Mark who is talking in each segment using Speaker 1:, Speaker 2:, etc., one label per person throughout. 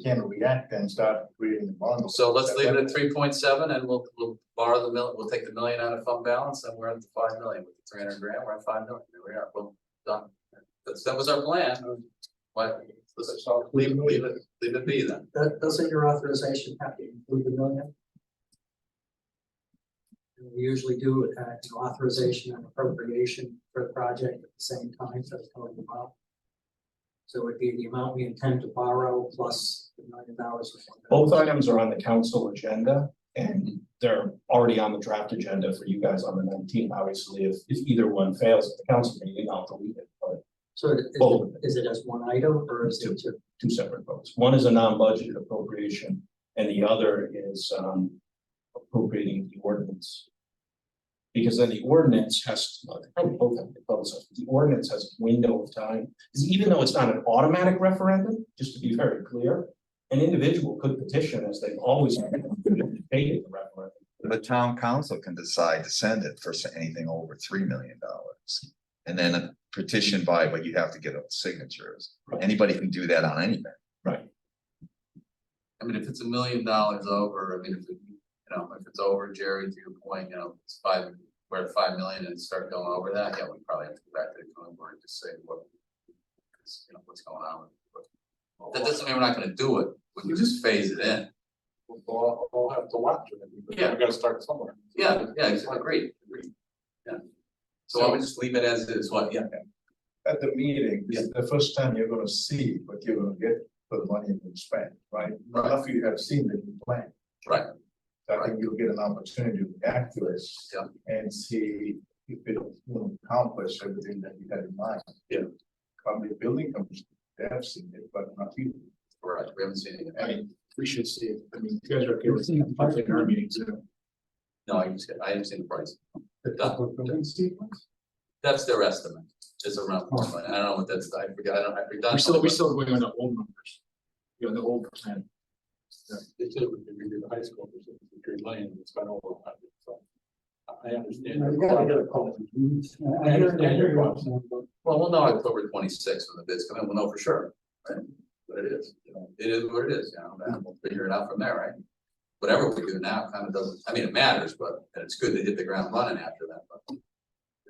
Speaker 1: can react and start creating the bond.
Speaker 2: So let's leave it at three point seven and we'll, we'll borrow the mil, we'll take the million out of fund balance and we're at the five million with the three hundred grand, we're at five million, there we are, boom, done. That's, that was our plan. Why, let's leave, leave it, leave it be then.
Speaker 3: That, doesn't your authorization have to include the million? And We usually do, uh, you know, authorization and appropriation for the project at the same time, so it's going to borrow. So it would be the amount we intend to borrow plus the million dollars.
Speaker 4: Both items are on the council agenda and they're already on the draft agenda for you guys on the nineteenth. Obviously, if, if either one fails at the council meeting, I'll delete it, but
Speaker 3: So is it,
Speaker 4: Both.
Speaker 3: is it as one item or is it two?
Speaker 4: two separate votes. One is a non-budgeted appropriation and the other is, um, appropriating the ordinance. Because then the ordinance has, well, they probably both have to close it. the ordinance has a window of time. Because even though it's not an automatic referendum, just to be very clear, an individual could petition as they've always done, debated the referendum.
Speaker 5: The town council can decide to send it for s- anything over three million dollars. And then a petition by, but you have to get signatures.
Speaker 4: Right.
Speaker 5: Anybody can do that on anything.
Speaker 2: I mean, if it's a million dollars over, I mean, if it, you know, if it's over, Jerry, to your point, you know, it's five, we're at five million and start going over that, yeah, we probably have to go back to the drawing board and just say what. Cause you know, what's going on with it. But That doesn't mean we're not gonna do it, we can just phase it in.
Speaker 1: We'll, we'll have to watch it.
Speaker 2: we Yeah.
Speaker 1: gotta start somewhere.
Speaker 2: Yeah, yeah, it's agreed, agreed. Yeah. So I would just leave it as is, what, yeah,
Speaker 1: At the meeting, this is the first time you're gonna see what you're gonna get for the money you spent, right?
Speaker 2: Right.
Speaker 1: After you have seen the plan.
Speaker 2: Right.
Speaker 1: I think you'll get an opportunity to react to it.
Speaker 2: Yeah.
Speaker 1: And see if it will accomplish everything that you had in mind.
Speaker 2: Yeah.
Speaker 1: Probably building companies, they have seen it, but not you.
Speaker 2: right, we haven't seen it,
Speaker 6: I
Speaker 2: yet.
Speaker 6: mean, we should see it. I mean, you guys are okay with it. Our meetings, you know.
Speaker 2: no, I just, I haven't seen the price,
Speaker 1: The
Speaker 2: public
Speaker 1: building
Speaker 2: that's their estimate, is around four million, I don't know what that's, I forgot, I don't, I forgot.
Speaker 6: We're still, we're still going on the old numbers. You know, the old plan.
Speaker 7: They said when we did the high school, there's a green lane, it's been over a hundred, so. I- I understand. I understand your point.
Speaker 2: Well, we'll know October twenty-sixth when the bids come in, we'll know for sure, right? But it is, you know, it is what it is, you know, and we'll figure it out from there, right? Whatever we do now kind of doesn't, I mean, it matters, but it's good to hit the ground running after that, but.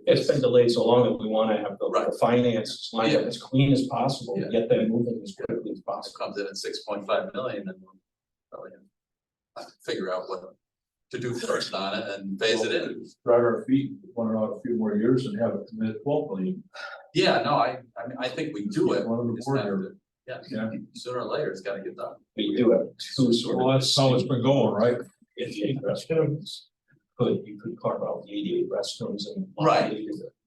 Speaker 4: It's been delayed so long that we wanna have the-
Speaker 2: Right.
Speaker 4: the finances lined up
Speaker 2: Yeah.
Speaker 4: as clean as possible,
Speaker 2: Yeah.
Speaker 4: get them moving as quickly as
Speaker 2: It
Speaker 4: possible.
Speaker 2: comes in at six point five million, then we'll probably have to figure out what to do first on it and phase it in.
Speaker 7: Drive our feet, one another a few more years and have it commit twelve million.
Speaker 2: Yeah, no, I, I mean, I think we do it,
Speaker 7: One of the
Speaker 2: It's not-
Speaker 7: board
Speaker 2: yeah, sooner or later, it's gotta get done.
Speaker 4: But you do have two
Speaker 7: there.
Speaker 4: sort of.
Speaker 7: Well, that's how it's been going, right?
Speaker 4: Eighty-eight restrooms, could, you could carve out the eighty-eight restrooms and.
Speaker 2: Right.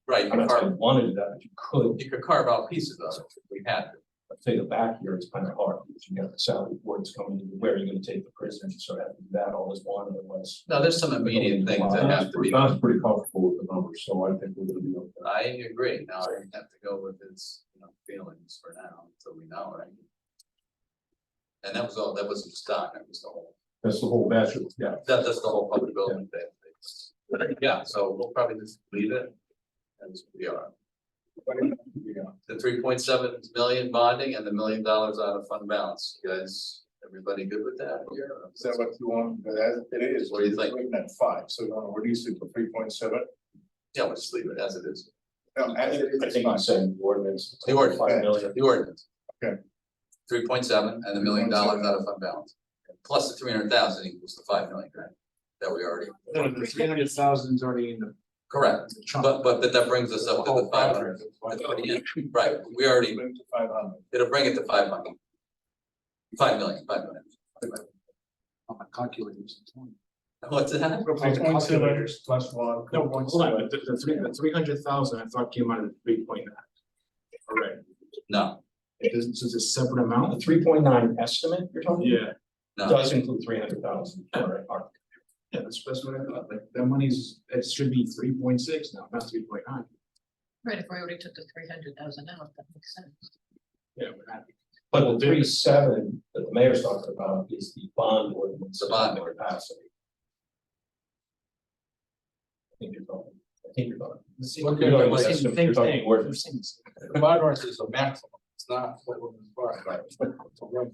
Speaker 2: Right, you
Speaker 4: I'm
Speaker 2: could
Speaker 4: not saying
Speaker 2: carve,
Speaker 4: you wanted to do that, but you could,
Speaker 2: you could carve out pieces of it if we had to.
Speaker 4: but take it back here, it's kind of hard, because you got the salary boards coming, in, where are you gonna take the prisoners, so having that all is one, unless.
Speaker 2: No, there's some immediate things that have to be.
Speaker 7: Don's pretty comfortable with the numbers, so I think we're gonna be okay.
Speaker 2: I agree. Now I have to go with his, you know, feelings for now, until we know, right? And that was all, that wasn't just Don, that was the whole,
Speaker 7: That's the whole batch of, yeah.
Speaker 2: that, that's the whole public building thing. Yeah, so we'll probably just leave it as we are. The three point seven million bonding and the million dollars out of fund balance. You guys, everybody good with that here?
Speaker 1: Is that what you want? But as it is.
Speaker 2: What do you think?
Speaker 1: we're Looking at five, so you wanna reduce it to three point seven.
Speaker 2: Yeah, we'll just leave it as it is.
Speaker 1: No, as it is,
Speaker 4: I
Speaker 1: it's
Speaker 4: think you
Speaker 1: fine.
Speaker 4: said the ordinance.
Speaker 2: The ordinance.
Speaker 4: Five million,
Speaker 2: The ordinance.
Speaker 1: Okay.
Speaker 2: Three point seven and a million dollars out of fund balance, plus the three hundred thousand equals the five million, right? That we already,
Speaker 6: The three hundred thousand is already in the.
Speaker 2: correct, but, but that, that brings us up to the Oh, five hundred.
Speaker 6: Oh,
Speaker 2: Right, we already,
Speaker 1: Bring it to five hundred.
Speaker 2: it'll bring it to five million. Five million, five million.
Speaker 6: On my calculators.
Speaker 2: What's that?
Speaker 1: Three point seven plus one.
Speaker 6: No, hold on, the, the three, the three hundred thousand I thought came out of the three point nine. Correct.
Speaker 2: No,
Speaker 6: It doesn't, so it's a separate
Speaker 4: the
Speaker 6: amount?
Speaker 4: three point nine estimate you're talking?
Speaker 6: Yeah,
Speaker 2: no,
Speaker 4: Does include three hundred thousand for our
Speaker 6: yeah, that's, that's what I thought, like, that money's, it should be three point six now, not three point nine.
Speaker 8: Right, if we already took the three hundred thousand out, that makes sense.
Speaker 6: Yeah, we're not.
Speaker 4: But the three seven that the mayor's talking about is the bond ordinance.
Speaker 2: The bond.
Speaker 4: Capacity. I think you're talking, I think you're talking.
Speaker 7: Okay,
Speaker 4: You're
Speaker 7: but
Speaker 4: talking-
Speaker 6: same
Speaker 4: you're
Speaker 6: thing,
Speaker 4: talking ordinance.
Speaker 7: The bond ordinance is a maximum, it's not what we're requiring. Right.